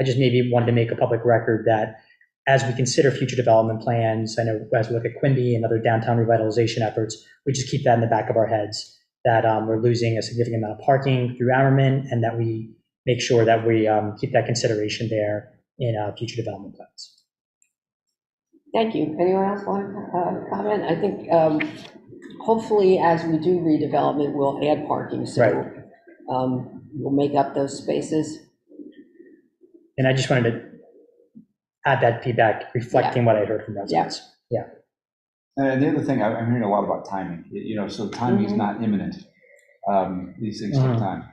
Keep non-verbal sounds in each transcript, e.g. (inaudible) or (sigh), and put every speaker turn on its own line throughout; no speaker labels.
I just maybe wanted to make a public record that as we consider future development plans, I know as we look at Quimby and other downtown revitalization efforts, we just keep that in the back of our heads, that um, we're losing a significant amount of parking through Ammerman, and that we make sure that we um, keep that consideration there in uh, future development plans.
Thank you. Anyone else want to comment? I think um, hopefully, as we do redevelopment, we'll add parking, so
Right.
um, we'll make up those spaces.
And I just wanted to add that feedback, reflecting what I heard from residents.
And the other thing, I- I'm hearing a lot about timing, y- you know, so timing is
Mhm.
not imminent. Um, These things take
Mhm.
time.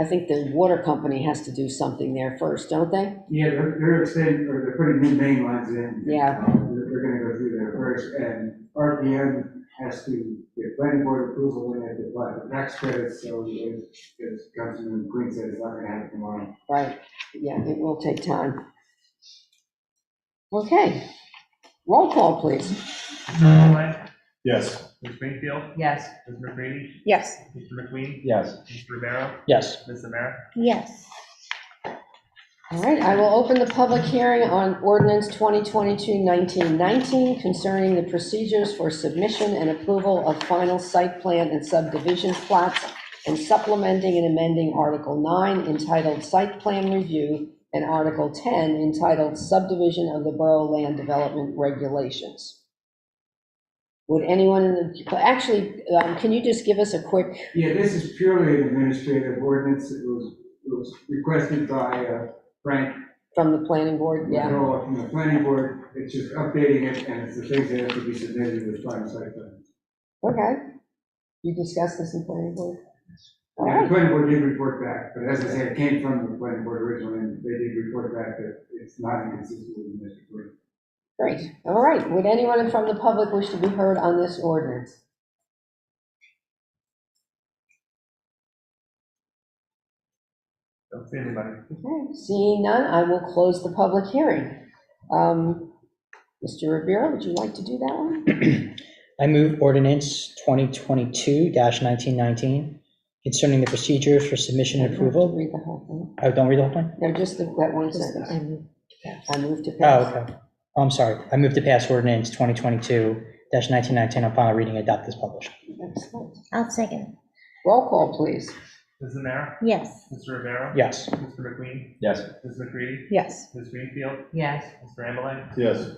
I think the water company has to do something there first, don't they?
Yeah, they're, they're extending, or they're putting new main lines in.
Yeah.
Uh, They're they're gonna go through there first, and RPM has to get planning board approval and they have to apply the tax credits, so if, if Councilman Queen said it's not gonna happen tomorrow.
Right, yeah, it will take time. Okay, roll call, please.
Conley,
Yes.
Ms. Greenfield,
Yes.
Ms. McCready,
Yes.
Mr. McQueen,
Yes.
Mr. Rivera,
Yes.
Ms. Amer.
Yes.
All right, I will open the public hearing on ordinance 2022-1919 concerning the procedures for submission and approval of final site plan and subdivision plots and supplementing and amending Article 9 entitled Site Plan Review and Article 10 entitled Subdivision of the Borough Land Development Regulations. Would anyone, in the actually, um, can you just give us a quick,
Yeah, this is purely an administrative ordinance, it was, it was requested by uh, Frank
from the planning board? Yeah,
McCullough from the planning board, it's just updating it, and it's the things that have to be submitted with final site plan.
okay. You discussed this in planning board? All
And
right.
the planning board did report back, but as I said, it came from the planning board originally, and they did report back that it's not inconsistent with the district board.
Great, all right. Would anyone from the public wish to be heard on this ordinance?
Don't see anybody.
Okay, seeing none, I will close the public hearing. Um, Mr. Rivera, would you like to do that one?
I move ordinance 2022-1919 concerning the procedures for submission and approval.
Read the whole
Oh, don't read the whole thing?
thing. No, just the- that one sentence.
I'm-
I move to
Oh,
pass.
okay. I'm sorry. I move to pass ordinance 2022-1919 on final reading, adopt as published.
Excellent.
I'll second.
Roll call, please.
Ms. Amer,
Yes.
Mr. Rivera.
Yes.
Mr. McQueen,
Yes.
Ms. McCready,
Yes.
Ms. Greenfield,
Yes.
Mr. Ambeline,
Yes.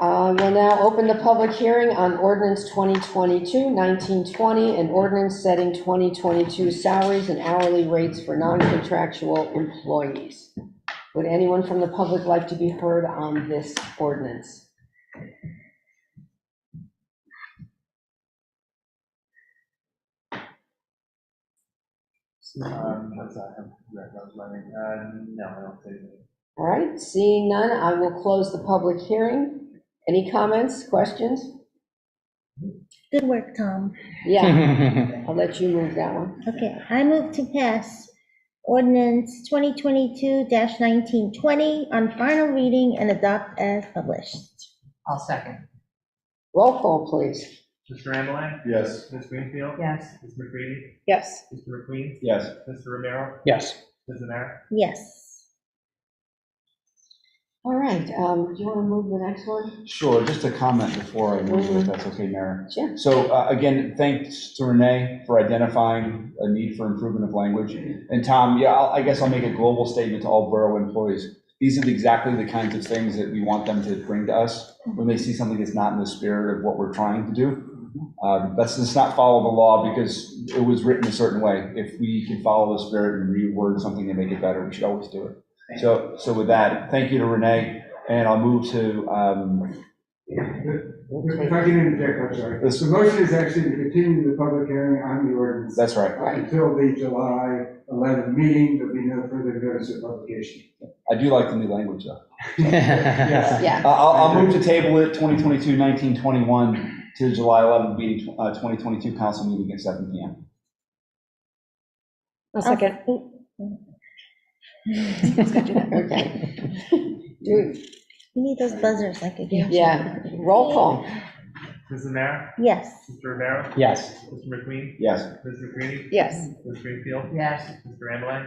Uh, We'll now open the public hearing on ordinance 2022-1920, an ordinance setting 2022 salaries and hourly rates for non-contractual employees. Would anyone from the public like to be heard on this ordinance?
Um, that's, uh, that was my name. Uh, no, I don't see anything.
All right, seeing none, I will close the public hearing. Any comments, questions?
Good work, Tom.
Yeah, I'll let you move that one.
Okay, I move to pass ordinance 2022-1920 on final reading and adopt as published.
I'll second.
Roll call, please.
Mr. Ambeline,
Yes.
Ms. Greenfield,
Yes.
Ms. McCready,
Yes.
Mr. McQueen,
Yes.
Mr. Rivera,
Yes. (laughs)
Ms. Amer.
Yes.
All right, um, do you want to move the next one?
Sure, just a comment before I move, if that's okay, Mayor.
Sure.
So uh, again, thanks to Renee for identifying a need for improvement of language. And Tom, yeah, I'll- I guess I'll make a global statement to all borough employees. These are exactly the kinds of things that we want them to bring to us when they see something that's not in the spirit of what we're trying to do. Um, Let's just not follow the law because it was written a certain way. If we can follow the spirit and reword something and make it better, we should always do it. So, so with that, thank you to Renee, and I'll move to um,
If I can interject, I'm sorry.
Yes.
The motion is actually to continue the public hearing on the ordinance
That's right.
until the July 11 meeting, there'll be no further notice of publication.
I do like the new language, though.
Yes.
Yeah.
I- I'll, I'll move to table it 2022-1921 to the July 11th meeting, uh, 2022 council meeting at 7 PM.
Oh.
I'll second.
(laughs) Okay. (laughs) Do-
We need those buzzers like a.
Yeah, roll call.
Mrs. Mayor,
Yes.
Mr. Rivera,
Yes.
Mr. McQueen,
Yes.
Ms. McCready,
Yes.
Ms. Greenfield,
yes.
Mr. Ambeline,